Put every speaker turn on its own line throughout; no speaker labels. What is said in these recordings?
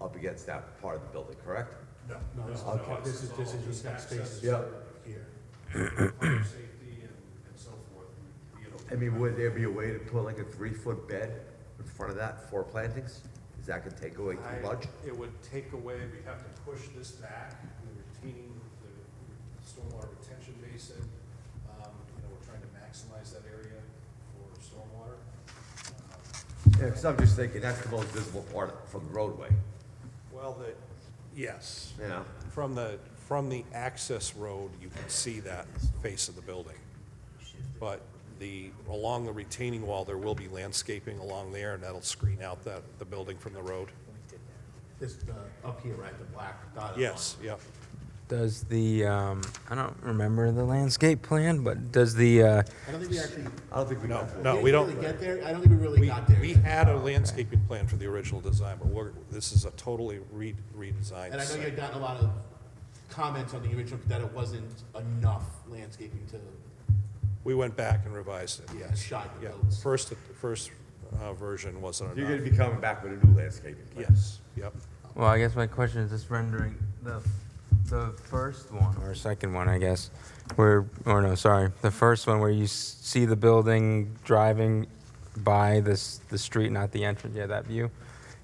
up against that part of the building, correct?
No.
No, this is,
no,
Okay.
not. this is, this is,
It's
you've got spaces
access
Yeah.
here.
for Fire safety and, and so forth, you know.
I mean, would there be a way to put like a three-foot bed in front of that for plantings? Is that gonna take away
I-
too much?
It would take away, we'd have to push this back, the retaining, the stormwater retention basin. Um, you know, we're trying to maximize that area for stormwater. Um,
Yeah, cause I'm just thinking, that's the most visible part from the roadway,
Well, the, yes,
you know?
from the, from the access road, you can see that face of the building. But the, along the retaining wall, there will be landscaping along there, and that'll screen out that, the building from the road.
This, uh, up here, right, the black dotted line.
Yes, yeah.
Does the, um, I don't remember the landscape plan, but does the, uh,
I don't think we actually.
I don't think we
No,
got that.
no,
didn't
we don't,
Really get there, I don't think we really
we,
got there.
we
yet.
had a landscaping plan for the original design, but we're, this is a totally re- redesigned
And I know you
site.
had gotten a lot of comments on the original, that it wasn't enough landscaping to
We went back and revised it, yes.
shy the
Yeah,
boats.
first, first uh, version wasn't
You're
enough.
gonna be coming back with a new landscaping plan.
Yes, yep.
well, I guess my question is this rendering the, the first one or second one, I guess, where, or no, sorry, the first one where you s- see the building driving by this, the street, not the entrance, yeah, that view.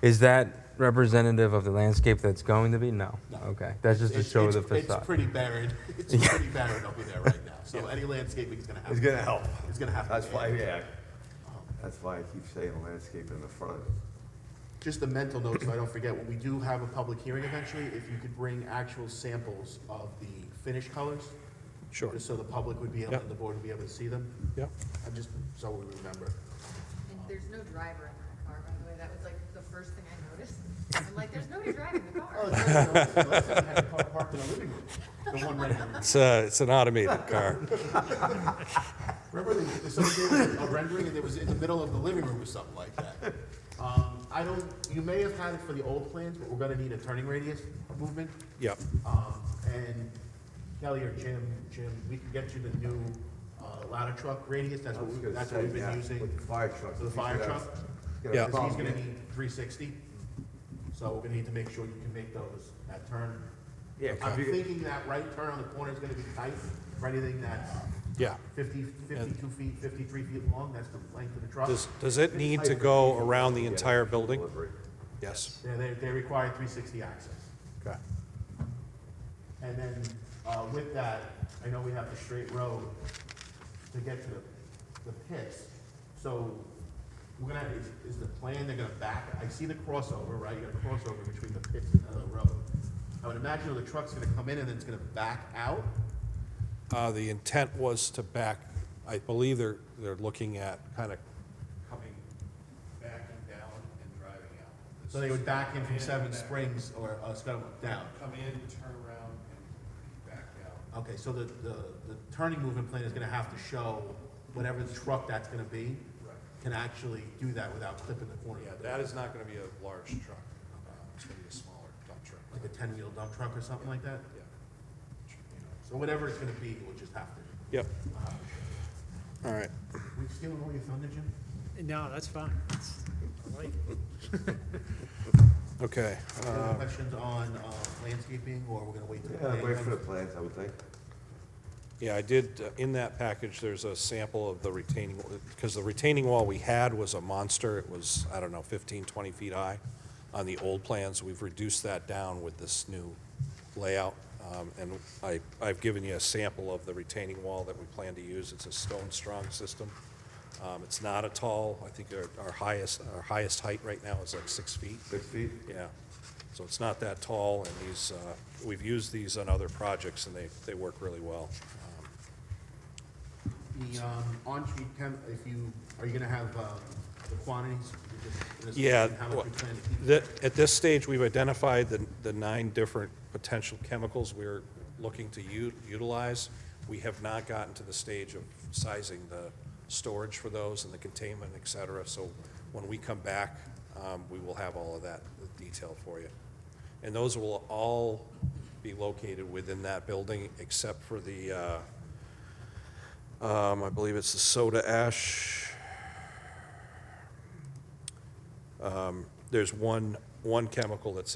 Is that representative of the landscape that's going to be? No.
No.
Okay, that's just to
It's-
show
it's-
the facade.
It's pretty buried, it's pretty buried over there right now, so any landscaping is gonna have.
It's gonna help.
It's gonna have to.
That's
be
why,
added.
yeah. That's why I keep saying landscape in the front.
Just a mental note, so I don't forget, when we do have a public hearing eventually, if you could bring actual samples of the finished colors,
Sure,
just so the public would be able,
Yep.
and the board would be able to see them,
yep.
I'm just, so we remember.
And there's no driver in that car, by the way. That was like the first thing I noticed. I'm like, there's nobody driving the
Oh,
car.
it's like, you know, it's like I had a car parked in our living room, the one right here.
It's, uh, it's an automated car.
Remember, they, they sort of gave a rendering, and it was in the middle of the living room or something like that. Um, I don't, you may have had it for the old plans, but we're gonna need a turning radius movement.
Yep,
Um, and Kelly or Jim, Jim, we can get you the new, uh, ladder truck radius, that's what, we- that's what we've been using.
With the fire truck.
For the fire truck?
Yeah.
Cause he's gonna need three sixty, so we're gonna need to make sure you can make those, that turn.
Yeah, 'cause
I'm
you-
thinking that right turn on the corner is gonna be tight for anything that's
yeah.
50 52 feet, fifty-three feet long, that's the length of the truck.
Does, does it need to go around the entire building? Yes,
They, they, they require three sixty access.
okay.
And then, uh, with that, I know we have the straight road to get to the, the pits. So, we're gonna, have- is, is the plan, they're gonna back, I see the crossover, right, you got a crossover between the pits and the road. I would imagine the truck's gonna come in and then it's gonna back out,
Uh, The intent was to back, I believe they're, they're looking at kind of coming, backing down and driving out.
so they would back in from Seven Springs or, uh, Scuttle down.
Come in, turn around, and back out.
Okay, so the, the, the turning movement plan is gonna have to show whatever truck that's gonna be.
Right.
Can actually do that without clipping the corner.
Yeah, that is not going to be a large truck. Uh, It's going to be a smaller dump truck.
Like a ten-wheel dump truck or something like that?
Yeah.
So whatever it's gonna be, we'll just have to.
Yep. All right.
We stealing all your thunder, Jim?
No, that's fine. It's- I like it.
Okay.
Uh,
Any other questions on, uh, landscaping, or we're gonna wait till? the
Yeah,
plan
wait for the
comes?
plans, I would think.
Yeah, I did, uh, in that package, there's a sample of the retaining, because the retaining wall we had was a monster. It was, I don't know, 15, 20 feet high on the old plans. We've reduced that down with this new layout. Um, And I, I've given you a sample of the retaining wall that we plan to use. It's a stone-strong system. Um, It's not a tall, I think our our highest, our highest height right now is like six feet.
Six feet?
Yeah, so it's not that tall, and these, uh, we've used these on other projects, and they, they work really well. Um,
The, um, on-street chem, if you, are you gonna have, um, the quantities? You just- this-
Yeah,
How much you plan to keep?
the- at this stage, we've identified the, the nine different potential chemicals we're looking to u- utilize. We have not gotten to the stage of sizing the storage for those and the containment, et cetera, so when we come back, um, we will have all of that detail for you. And those will all be located within that building, except for the, uh, um, I believe it's the soda ash. Um, There's one, one chemical that's